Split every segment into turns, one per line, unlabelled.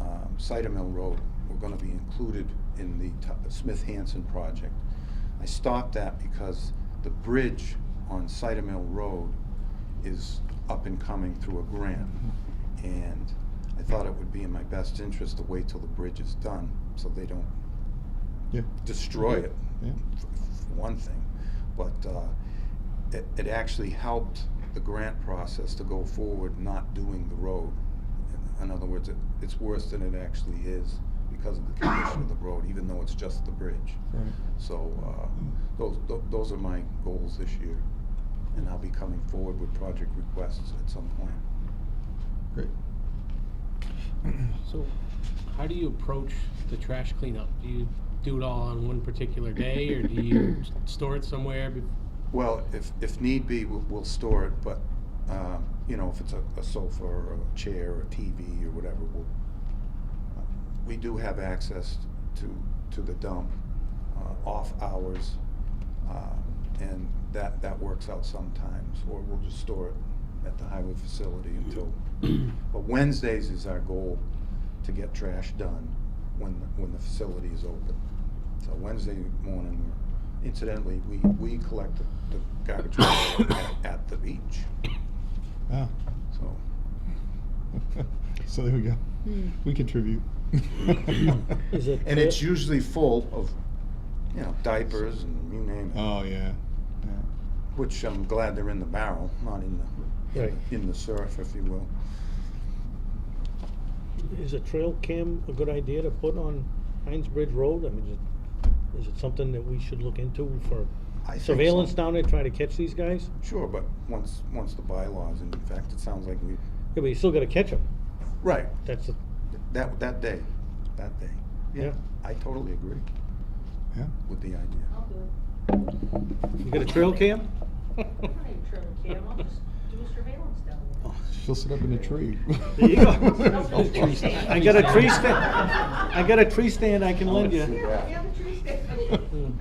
um, Cider Mill Road were gonna be included in the Tu- Smith Hanson project. I stopped that because the bridge on Cider Mill Road is up and coming through a grant. And I thought it would be in my best interest to wait till the bridge is done, so they don't
Yeah.
destroy it,
Yeah.
f- f- for one thing. But uh, it, it actually helped the grant process to go forward not doing the road. In other words, it, it's worse than it actually is because of the condition of the road, even though it's just the bridge.
Right.
So uh, those, tho- those are my goals this year. And I'll be coming forward with project requests at some point.
Great.
So, how do you approach the trash cleanup? Do you do it all on one particular day, or do you s- store it somewhere? be-
Well, if, if need be, we'll, we'll store it, but, um, you know, if it's a, a sofa or a chair or a TV or whatever, we'll, uh, we do have access to, to the dump, uh, off hours, um, and that, that works out sometimes, or we'll just store it at the highway facility until, but Wednesdays is our goal to get trash done when, the- when the facility is open. So Wednesday morning, we're- incidentally, we, we collect the the garbage at- at the beach,
Ah.
so.
so there we go. We contribute.
Is it-
And it's usually full of, you know, diapers and you name
Uh.
it,
Oh yeah. Yeah.
which I'm glad they're in the barrel, not in the,
Right.
in the surf, if you will.
Is a trail cam a good idea to put on Heinz Bridge Road? I mean, is it, is it something that we should look into for
I think so.
surveillance down there, trying to catch these guys?
Sure, but once, once the bylaws, and in fact, it sounds like we,
Yeah, but you still gotta catch them.
right,
That's, the-
that, that day, that day.
yeah,
I totally agree
Yeah.
with the idea.
I'll do it.
you got a trail cam?
I don't need a trail cam, I'll just do a surveillance down there.
She'll sit up in a tree.
There you
I'll do a tree
go.
stand.
I got a tree stand, I got a tree stand I can lend
I'll
you.
see.
Yeah, yeah, the tree stand.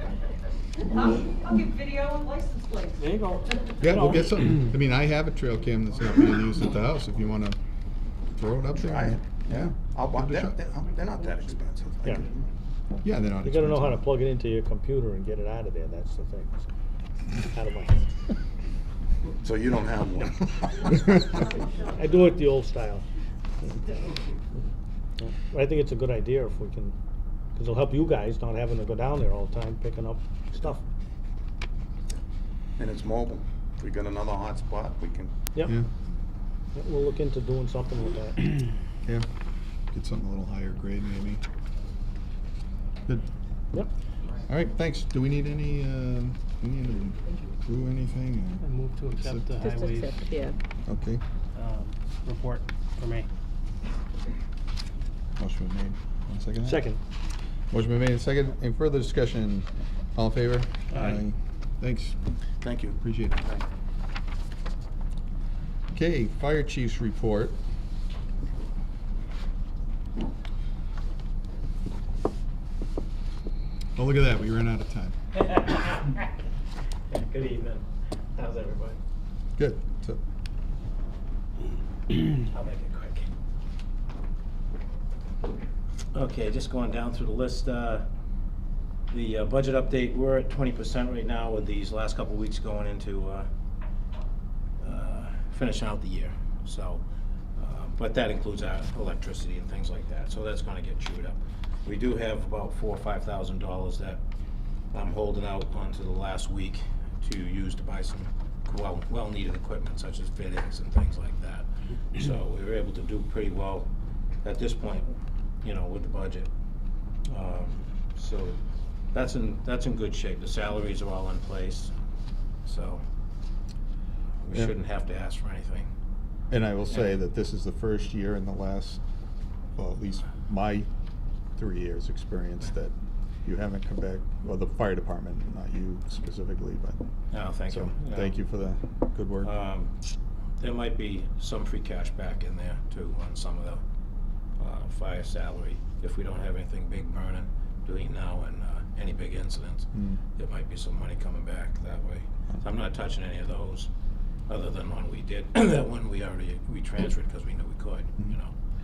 I'll, I'll get video and license plates.
There you go.
Yeah, we'll get some. I mean, I have a trail cam that's not being used at the house. If you want to throw it up there.
Try it.
Yeah.
I'll, buy-
Give it a
they're,
shot.
they're they're not that expensive. I
Yeah.
could-
Yeah, they're not.
You gotta know how to
expensive.
plug it into your computer and get it out of there, that's the thing. Out of my head.
So you don't have one?
I do it the old style. I think it's a good idea if we can, because it'll help you guys not having to go down there all the time picking up stuff.
And it's mobile. If we got another hot spot, we can,
Yep,
Yeah.
yep, we'll look into doing something with that.
Yeah. Get something a little higher grade, maybe. Good.
Yep,
All right. Thanks. Do we need any? Uh, we need to do anything?
I move to accept the
Just
highways
accept, yeah.
Or? Okay.
um, report for me.
Motion was made. One second.
second.
Motion been made and second. Any further discussion? All in favor?
Aye.
Thanks.
thank you.
Appreciate it.
Thank you.
Okay, fire chief's report. Oh, look at that, we ran out of time.
Good evening. How's everybody?
Good. So,
I'll make it quick. Okay, just going down through the list, uh, the uh, budget update, we're at twenty percent right now with these last couple weeks going into, uh, uh, finishing out the year, so, uh, but that includes our electricity and things like that, so that's gonna get chewed up. We do have about four or five thousand dollars that I'm holding out onto the last week to use to buy some well, well-needed equipment such as fittings and things like that. So we were able to do pretty well at this point, you know, with the budget. Um, So that's in, that's in good shape. The salaries are all in place, so we
Yeah.
shouldn't have to ask for anything.
and I will say that this is the first year in the last, well, at least my three years' experience that you haven't come back, well, the fire department, not you specifically, but,
No, thank
so,
you. Yeah.
thank you for the good work.
Um, There might be some free cash back in there too on some of the uh, fire salary. If we don't have anything big burning between now and uh, any big incidents,
Mm.
there might be some money coming back that way. So I'm not touching any of those, other than one we did, that one we already, we transferred because we knew we could, you know.